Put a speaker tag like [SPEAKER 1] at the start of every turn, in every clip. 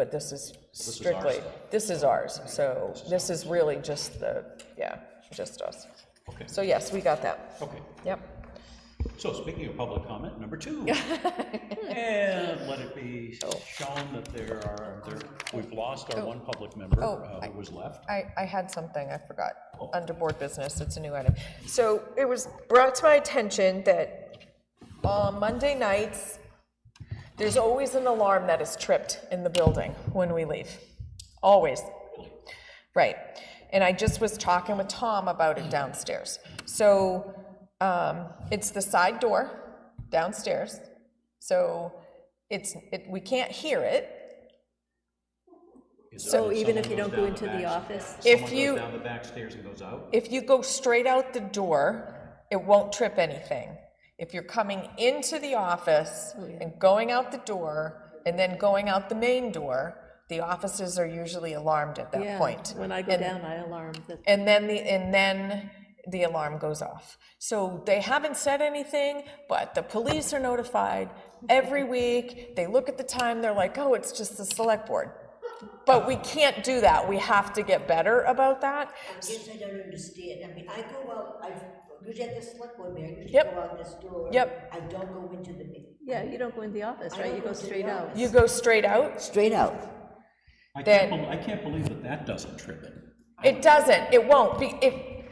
[SPEAKER 1] But this is strictly, this is ours, so this is really just the, yeah, just us.
[SPEAKER 2] Okay.
[SPEAKER 1] So yes, we got that.
[SPEAKER 2] Okay,
[SPEAKER 1] Yep.
[SPEAKER 2] so speaking of public comment, number two. And let it be
[SPEAKER 1] Oh.
[SPEAKER 2] shown that there are, there, we've lost our one public member
[SPEAKER 1] Oh,
[SPEAKER 2] uh, who was left.
[SPEAKER 1] I, I had something I forgot, under board business, it's a new item. So it was brought to my attention that on Monday nights, there's always an alarm that is tripped in the building when we leave, always. Right, and I just was talking with Tom about it downstairs. So, um, it's the side door downstairs, so it's, it, we can't hear it,
[SPEAKER 2] Is
[SPEAKER 3] So
[SPEAKER 2] that
[SPEAKER 3] even if
[SPEAKER 2] someone
[SPEAKER 3] you
[SPEAKER 2] goes
[SPEAKER 3] don't go
[SPEAKER 2] down
[SPEAKER 3] into the
[SPEAKER 2] back-
[SPEAKER 3] office,
[SPEAKER 1] If
[SPEAKER 2] someone
[SPEAKER 1] you-
[SPEAKER 2] goes down the back stairs and goes out?
[SPEAKER 1] If you go straight out the door, it won't trip anything. If you're coming into the office
[SPEAKER 3] Oh,
[SPEAKER 1] and going out the door and then going out the main door, the offices are usually alarmed at that
[SPEAKER 3] yeah,
[SPEAKER 1] point.
[SPEAKER 3] when I go down, I alarm the
[SPEAKER 1] And then the and then the alarm goes off. So they haven't said anything, but the police are notified every week. They look at the time, they're like, "Oh, it's just the select board." But we can't do that. We have to get better about that.
[SPEAKER 4] I guess I don't understand, I mean, I go out, I, usually at the select board meeting, I usually
[SPEAKER 1] Yep.
[SPEAKER 4] go out this door.
[SPEAKER 1] Yep.
[SPEAKER 4] I don't go into the meeting.
[SPEAKER 3] Yeah, you don't go in the office, right? You go straight out.
[SPEAKER 1] You go straight out.
[SPEAKER 4] Straight out.
[SPEAKER 2] I can't,
[SPEAKER 1] then-
[SPEAKER 2] bel- I can't believe that that doesn't trip it.
[SPEAKER 1] It doesn't, it won't be, it,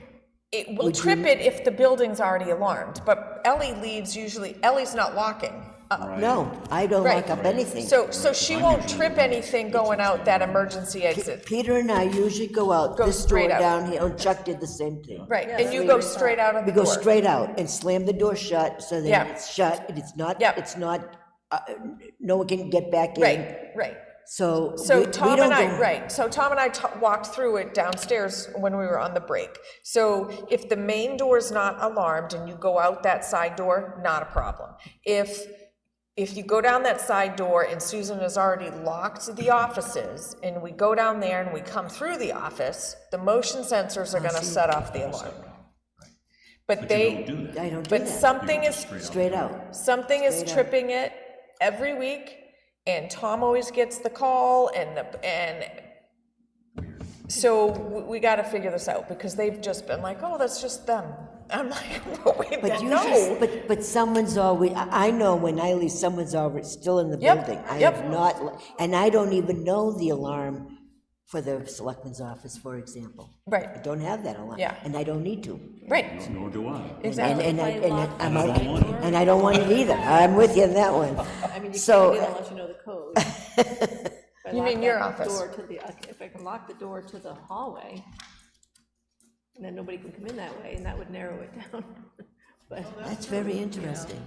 [SPEAKER 1] it will
[SPEAKER 4] Would
[SPEAKER 1] trip
[SPEAKER 4] you-
[SPEAKER 1] it if the building's already alarmed, but Ellie leves usually, Ellie's not walking. Uh,
[SPEAKER 2] Right.
[SPEAKER 4] No, I don't
[SPEAKER 1] Right.
[SPEAKER 4] lock up anything.
[SPEAKER 1] So, so she won't trip anything going out that emergency exit.
[SPEAKER 4] Peter and I usually go out
[SPEAKER 1] Go
[SPEAKER 4] this door
[SPEAKER 1] straight out.
[SPEAKER 4] down here, and Chuck did the same thing.
[SPEAKER 1] Right,
[SPEAKER 3] Yeah,
[SPEAKER 1] and
[SPEAKER 3] so
[SPEAKER 1] you
[SPEAKER 3] we
[SPEAKER 1] go
[SPEAKER 3] just-
[SPEAKER 1] straight out of
[SPEAKER 4] We
[SPEAKER 1] the
[SPEAKER 4] go
[SPEAKER 1] door.
[SPEAKER 4] straight out and slam the door shut, so
[SPEAKER 1] Yeah.
[SPEAKER 4] that it's shut, and it's not,
[SPEAKER 1] Yep.
[SPEAKER 4] it's not, uh, no one can get back in.
[SPEAKER 1] Right, right.
[SPEAKER 4] So.
[SPEAKER 1] So
[SPEAKER 4] we- we
[SPEAKER 1] Tom
[SPEAKER 4] don't
[SPEAKER 1] and I,
[SPEAKER 4] go-
[SPEAKER 1] right, so Tom and I ta- walked through it downstairs when we were on the break. So if the main door is not alarmed and you go out that side door, not a problem. If, if you go down that side door and Susan has already locked the offices, and we go down there and we come through the office, the motion sensors are gonna set off the alarm. But
[SPEAKER 2] But you
[SPEAKER 1] they,
[SPEAKER 2] don't do that.
[SPEAKER 4] I don't do
[SPEAKER 1] but
[SPEAKER 4] that,
[SPEAKER 1] something is
[SPEAKER 4] straight out.
[SPEAKER 1] Something is tripping it every week, and Tom always gets the call, and the, and so we, we gotta figure this out, because they've just been like, oh, that's just them. I'm like, well, wait,
[SPEAKER 4] But
[SPEAKER 1] that-
[SPEAKER 4] you
[SPEAKER 1] no.
[SPEAKER 4] but, but someone's always, I, I know when I leave, someone's always still in the
[SPEAKER 1] Yep,
[SPEAKER 4] building. I
[SPEAKER 1] yep.
[SPEAKER 4] have not, le- and I don't even know the alarm for the selectman's office, for example. I
[SPEAKER 1] Right,
[SPEAKER 4] don't have that alarm.
[SPEAKER 1] Yeah.
[SPEAKER 4] And I don't need to.
[SPEAKER 1] right,
[SPEAKER 2] Nor do I.
[SPEAKER 4] And,
[SPEAKER 1] exactly,
[SPEAKER 4] and I, and I- I'm,
[SPEAKER 2] I don't want it.
[SPEAKER 4] out- and I don't want it either. I'm with you on that one.
[SPEAKER 3] I mean, you can't
[SPEAKER 4] So-
[SPEAKER 3] do that unless you know the code. If I
[SPEAKER 1] You
[SPEAKER 3] lock
[SPEAKER 1] mean your
[SPEAKER 3] that
[SPEAKER 1] office.
[SPEAKER 3] Door to the, if I can lock the door to the hallway, and then nobody can come in that way, and that would narrow it down. But,
[SPEAKER 4] That's very interesting.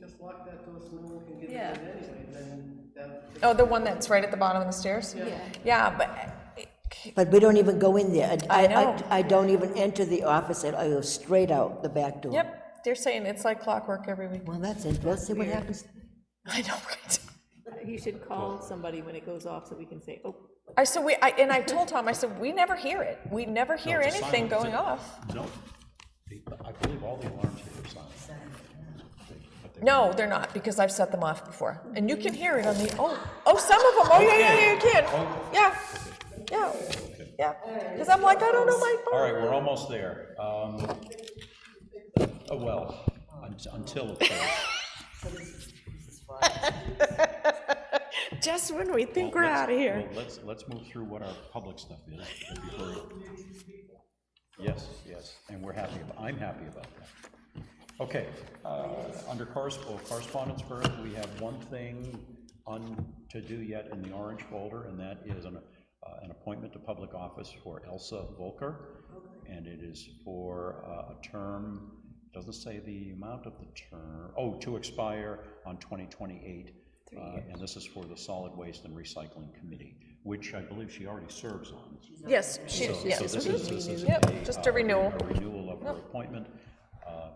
[SPEAKER 5] Just lock that door so no one can get in
[SPEAKER 3] Yeah.
[SPEAKER 5] anyway, then that,
[SPEAKER 1] oh, the one that's right at the bottom of the stairs?
[SPEAKER 3] Yeah.
[SPEAKER 1] Yeah, but, eh,
[SPEAKER 4] But we don't even go in there. And I,
[SPEAKER 1] know.
[SPEAKER 4] I, I don't even enter the office at, I go straight out the back door.
[SPEAKER 1] yep, they're saying it's like clockwork every week.
[SPEAKER 4] Well, that's interesting. Let's see what happens.
[SPEAKER 1] I know, right?
[SPEAKER 3] you should call somebody when it goes off, so we can say, oh,
[SPEAKER 1] I, so we, I, and I told Tom, I said, we never hear it, we never hear
[SPEAKER 2] it's a
[SPEAKER 1] anything
[SPEAKER 2] silent-
[SPEAKER 1] going
[SPEAKER 2] it's a-
[SPEAKER 1] off.
[SPEAKER 2] No, They- I believe all the alarms here are silent.
[SPEAKER 1] No, they're not, because I've set them off before. And you can hear it on the, oh, oh, some of them, oh, yeah, yeah, yeah, you can. Yeah, yeah, yeah. Because I'm like, I don't know my
[SPEAKER 2] All
[SPEAKER 1] phone.
[SPEAKER 2] right, we're almost there. Um, oh, well, un- until, of course,
[SPEAKER 1] Just when we think we're out of here.
[SPEAKER 2] well, let's, let's move through what our public stuff is. before- Yes, yes, and we're happy, ab- I'm happy about that. Okay, uh, under corres- well, correspondence first, we have one thing un, to do yet in the orange folder, and that is an, uh, an appointment to public office for Elsa Volker. And it is for uh, a term, doesn't say the amount of the term, oh, to expire on 2028. uh, And this is for the Solid Waste and Recycling Committee, which I believe she already serves on.
[SPEAKER 1] Yes, she,
[SPEAKER 2] So-
[SPEAKER 1] yes. Mm-hmm.
[SPEAKER 2] So this is, this is.
[SPEAKER 1] Yep, just a
[SPEAKER 2] uh,
[SPEAKER 1] renewal.
[SPEAKER 2] A renewal of her appointment. Uh, uh,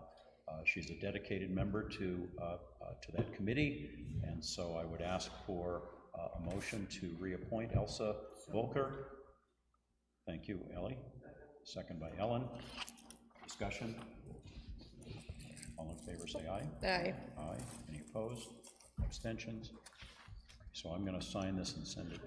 [SPEAKER 2] She's a dedicated member to, uh, uh, to that committee, and so I would ask for uh, a motion to reappoint Elsa Volker. Thank you, Ellie. Second by Ellen. Discussion? All in favor, say aye.
[SPEAKER 1] Aye.
[SPEAKER 2] Aye. Any opposed? Abstentions? So I'm going to sign this and send it